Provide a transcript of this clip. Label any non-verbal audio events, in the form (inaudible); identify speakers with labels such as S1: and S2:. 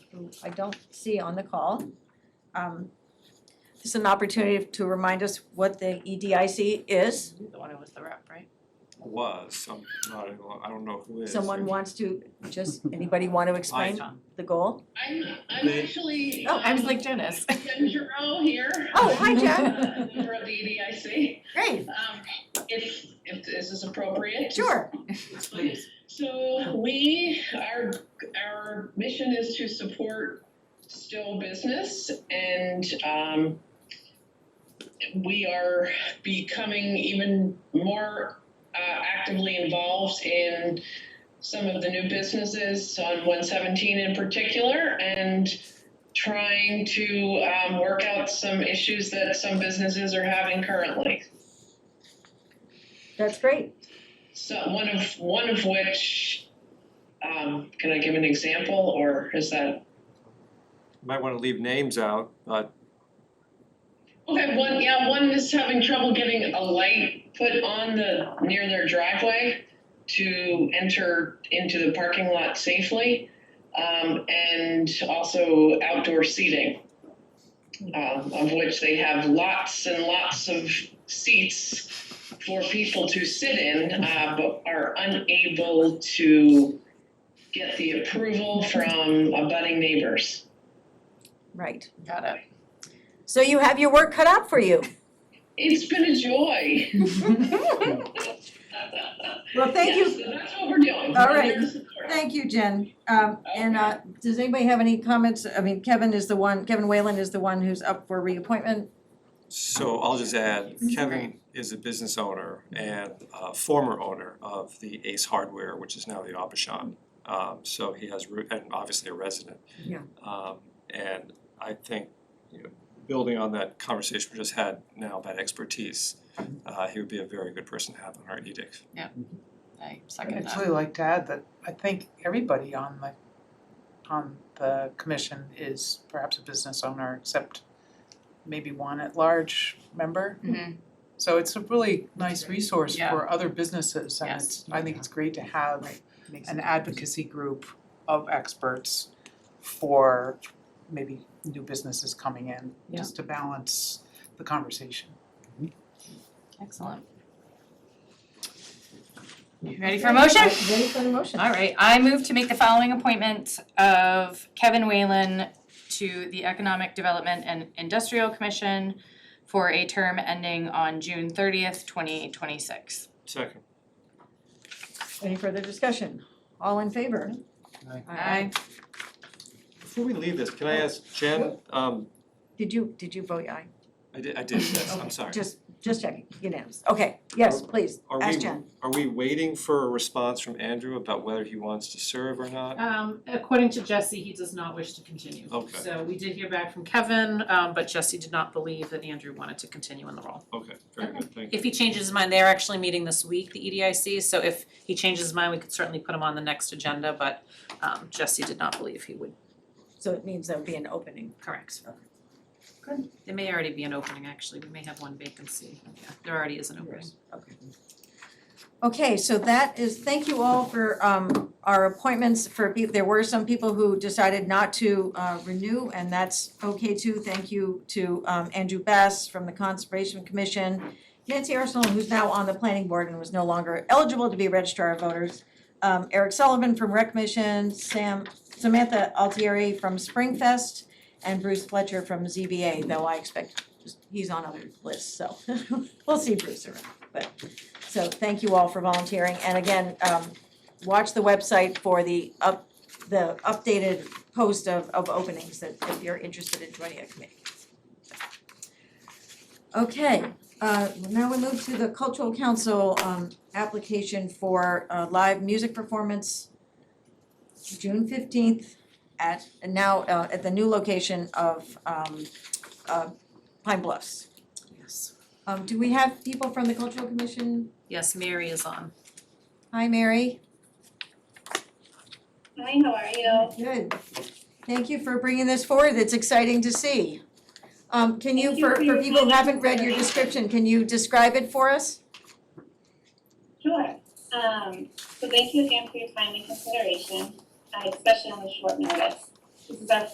S1: I don't see on the call. Um, This is an opportunity to remind us what the E EDIC is.
S2: the one who was the rep, right?
S3: was, some, not, I don't know who is.
S1: Someone wants to, just, anybody want to explain
S2: Tom.
S1: the goal?
S4: I'm, I'm
S3: They-
S4: actually.
S1: Oh,
S2: I was
S4: um,
S2: like Janice. (laughs)
S4: Jen Giroux here.
S1: Oh, hi, Jen.
S4: Uh, (laughs) Member of the EDIC.
S1: Great,
S4: Um, if, if this is appropriate.
S1: sure.
S2: Please.
S4: So we, our, our mission is to support still business and, um, we are becoming even more, uh, actively involved in some of the new businesses on one seventeen in particular and trying to, um, work out some issues that some businesses are having currently.
S1: That's great.
S4: So one of one of which, um, can I give an example, or is that
S3: Might wanna leave names out, but
S4: okay? One, yeah, one is having trouble getting a light put on the near their driveway to enter into the parking lot safely, um, and also outdoor seating, um, of which they have lots and lots of seats for people to sit in, uh, but are unable to get the approval from abutting neighbors.
S1: Right.
S2: Got it.
S1: So you have your work cut out for
S2: (laughs)
S1: you.
S4: It's been a joy. (laughs)
S1: Well, thank you.
S4: Yes, so that's what we're doing.
S1: All
S4: We're
S1: right.
S4: there to support.
S1: Thank you, Jen. Um, and, uh, does anybody have any comments? I mean, Kevin is the one, Kevin Whalen is the one who's up for reappointment.
S3: so I'll just add, Kevin is a business owner and uh former owner of the Ace Hardware, which is now the Obashan. Um so he has root and obviously a resident.
S1: Yeah.
S3: Um and I think, you know, building on that conversation we just had now about expertise, uh he would be a very good person to have on our edict.
S2: I
S5: I'd
S2: second that.
S5: actually like to add that I think everybody on the, on the commission is perhaps a business owner, except maybe one at-large member.
S2: Mhm.
S5: So it's a really nice resource
S2: Yeah.
S5: for other businesses, and
S2: Yes.
S5: it's, I think it's great to have an advocacy group of experts for maybe new businesses coming in,
S2: Yeah.
S5: just to balance the conversation.
S2: Excellent. You Ready for a motion?
S1: Ready for the motion?
S2: All right, I move to make the following appointment of Kevin Whalen to the Economic Development and Industrial Commission for a term ending on June thirtieth, twenty twenty-six.
S3: Second.
S1: Any further discussion? All in favor?
S5: Aye.
S3: Before we leave this, can I ask Jen, um
S1: Did you, did you vote aye?
S3: I did I did, yes, I'm sorry.
S1: Just, just checking, unanimous. Okay, yes, please,
S3: Are
S1: ask
S3: we-
S1: Jen.
S3: Are we waiting for a response from Andrew about whether he wants to serve or not?
S6: Um, according to Jesse, he does not wish to continue.
S3: Okay.
S6: So we did hear back from Kevin, um, but Jesse did not believe that Andrew wanted to continue in the role.
S3: Okay, very good, thank you.
S6: If he changes his mind, they're actually meeting this week, the E EDIC, so if he changes his mind, we could certainly put him on the next agenda, but, um, Jesse did not believe he would.
S1: So it means there'll be an opening.
S6: Correct. There may already be an opening, actually, we may have one vacancy, yeah, there already is an opening.
S1: Okay, so that is, thank you all for um our appointments for people, there were some people who decided not to uh renew and that's okay too. Thank you to um Andrew Bass from the Conservation Commission, Nancy Arsenal, who's now on the planning board and was no longer eligible to be registrar of voters, um Eric Sullivan from Rec Mission, Sam Samantha Altieri from Springfest, and Bruce Fletcher from ZBA, though I expect he's on other lists, so (laughs) we'll see Bruce around, but so thank you all for volunteering, and again, um, watch the website for the up, the updated post of, of openings that, if you're interested in joining a committee. Okay, uh, now we move to the cultural council, um, application for a live music performance June fifteenth at, and now, uh, at the new location of, um, uh, Pine Bluffs.
S6: Yes.
S1: Um, do we have people from the cultural commission
S6: Yes, Mary is on.
S1: Hi, Mary.
S7: Hi, how are you?
S1: Good. Thank you for bringing this forward. It's exciting to see. Um, can you,
S7: Thank you
S1: for,
S7: for
S1: for
S7: your
S1: people who
S7: time.
S1: haven't read your description, can you describe it for us?
S7: Sure. Um, so thank you again for your time and consideration, uh, especially on the short notice. This is our